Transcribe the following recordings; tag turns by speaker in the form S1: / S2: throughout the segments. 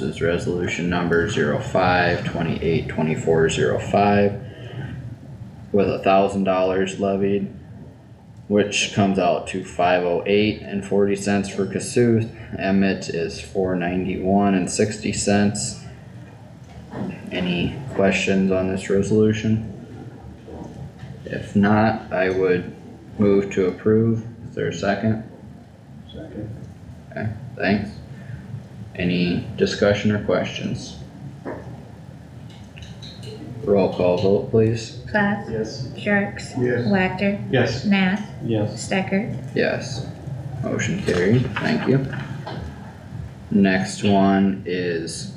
S1: This is resolution number zero five twenty-eight twenty-four zero five. With a thousand dollars levied, which comes out to five oh eight and forty cents for Cassuth. Emmett is four ninety-one and sixty cents. Any questions on this resolution? If not, I would move to approve. Is there a second?
S2: Second.
S1: Okay, thanks. Any discussion or questions? Roll call vote, please.
S3: Plath,
S2: Yes.
S3: Jerks,
S2: Yes.
S3: Wactor,
S2: Yes.
S3: Nath,
S2: Yes.
S3: Stecker.
S1: Yes. Motion carried, thank you. Next one is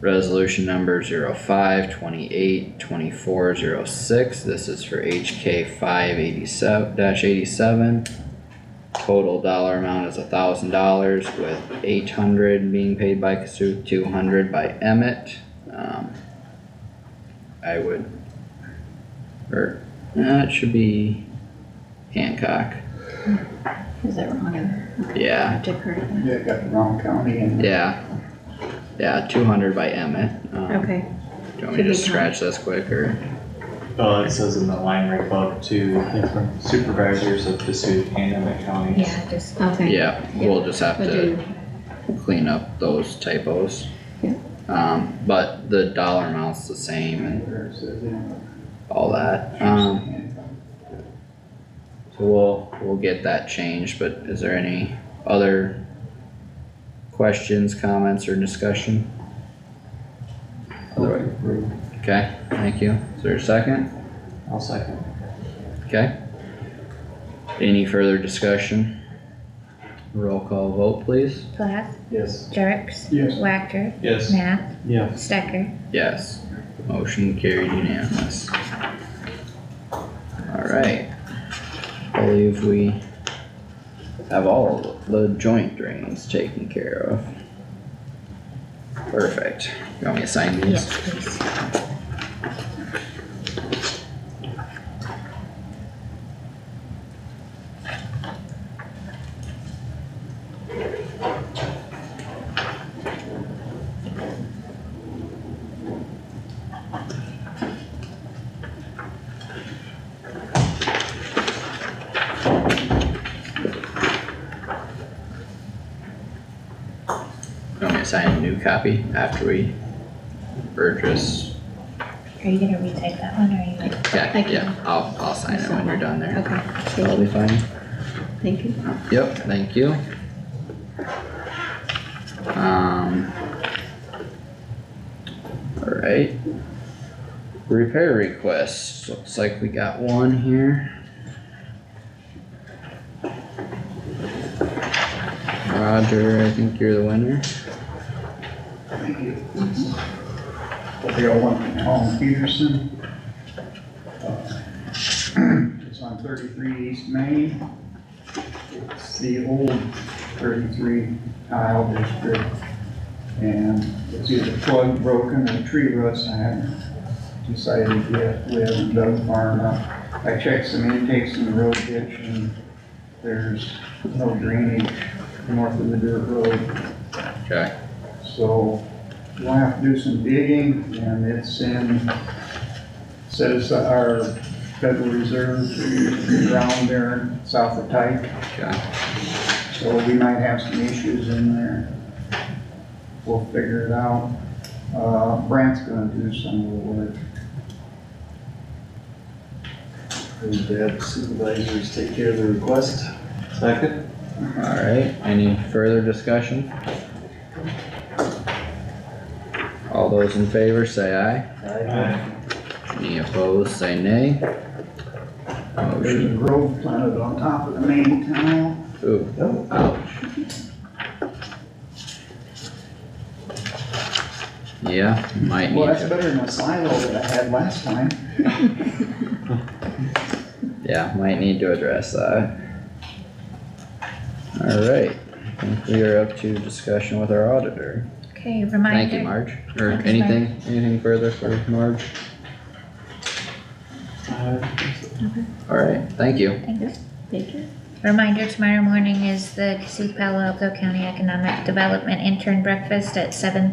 S1: resolution number zero five twenty-eight twenty-four zero six. This is for HK five eighty-seven eighty-seven. Total dollar amount is a thousand dollars with eight hundred being paid by Kasuk, two hundred by Emmett. Um, I would, or, that should be Hancock.
S4: Is that wrong? Okay,
S1: Yeah.
S4: I have to correct that.
S2: Yeah, got the wrong county in.
S1: Yeah. Yeah, two hundred by Emmett. Um,
S4: Okay,
S1: Do you want me to just scratch this quick or?
S5: Well, Uh, it says in the line right above to inform supervisors of Cassuth and Emmett counties.
S3: Yeah, just,
S4: okay.
S1: Yeah, we'll just have
S4: We'll
S1: to
S4: do,
S1: clean up those typos.
S4: Yeah.
S1: Um, but the dollar amount's the same and
S2: Where it says in.
S1: all that. Um, so we'll, we'll get that changed, but is there any other questions, comments or discussion? Otherwise, okay, thank you. Is there a second?
S5: I'll second.
S1: Okay. Any further discussion? Roll call vote, please.
S3: Plath,
S2: Yes.
S3: Jerks,
S2: Yes.
S3: Wactor,
S5: Yes.
S3: Nath,
S5: Yes.
S3: Stecker.
S1: Yes. Motion carried unanimous. Alright. Believe we have all the joint drains taken care of. Perfect. You want me to sign
S3: Yes,
S1: these?
S3: please.
S1: You want me to sign a new copy after we purchase?
S3: Are you gonna retype that one or are you?
S1: Yeah,
S4: I can.
S1: yeah, I'll, I'll sign it when you're done there.
S4: okay,
S1: That'll be fine.
S4: thank you.
S1: Yep, thank you. Um. Alright. Repair requests, looks like we got one here. Roger, I think you're the winner.
S2: Thank you. We got one from Tom Peterson. Uh, It's on thirty-three East Main. It's the old thirty-three tile district. And it's either plug broken or tree roots. I haven't decided yet. We haven't dug far enough. I checked some intakes in the road ditch and there's no drainage north of the dirt road.
S1: Okay.
S2: So we'll have to do some digging and it's in, set aside our Federal Reserve ground there south of Tyke.
S1: Okay,
S2: So we might have some issues in there. We'll figure it out. Uh, Brant's gonna do some of the work.
S6: Move that supervisors take care of the request.
S5: Second?
S1: alright, any further discussion? All those in favor say aye, any opposed say nay. Uh,
S2: There's a
S1: Motion,
S2: grove planted on top of the main tile.
S1: ooh.
S6: No,
S2: Oh.
S1: Ouch. Yeah, might
S2: Well,
S1: need
S2: that's
S1: to,
S2: better than a silo that I had last time.
S1: yeah, might need to address that. Alright, I think we are up to discussion with our auditor.
S3: Okay,
S1: Thank you,
S3: reminder,
S1: Marge. Or
S3: Thanks, Marge.
S1: anything, anything further for Marge?
S5: Uh,
S1: Alright, thank you.
S3: thanks.
S4: Thank you.
S3: Reminder, tomorrow morning is the Cassuth Palo Alto County Economic Development Intern Breakfast at seven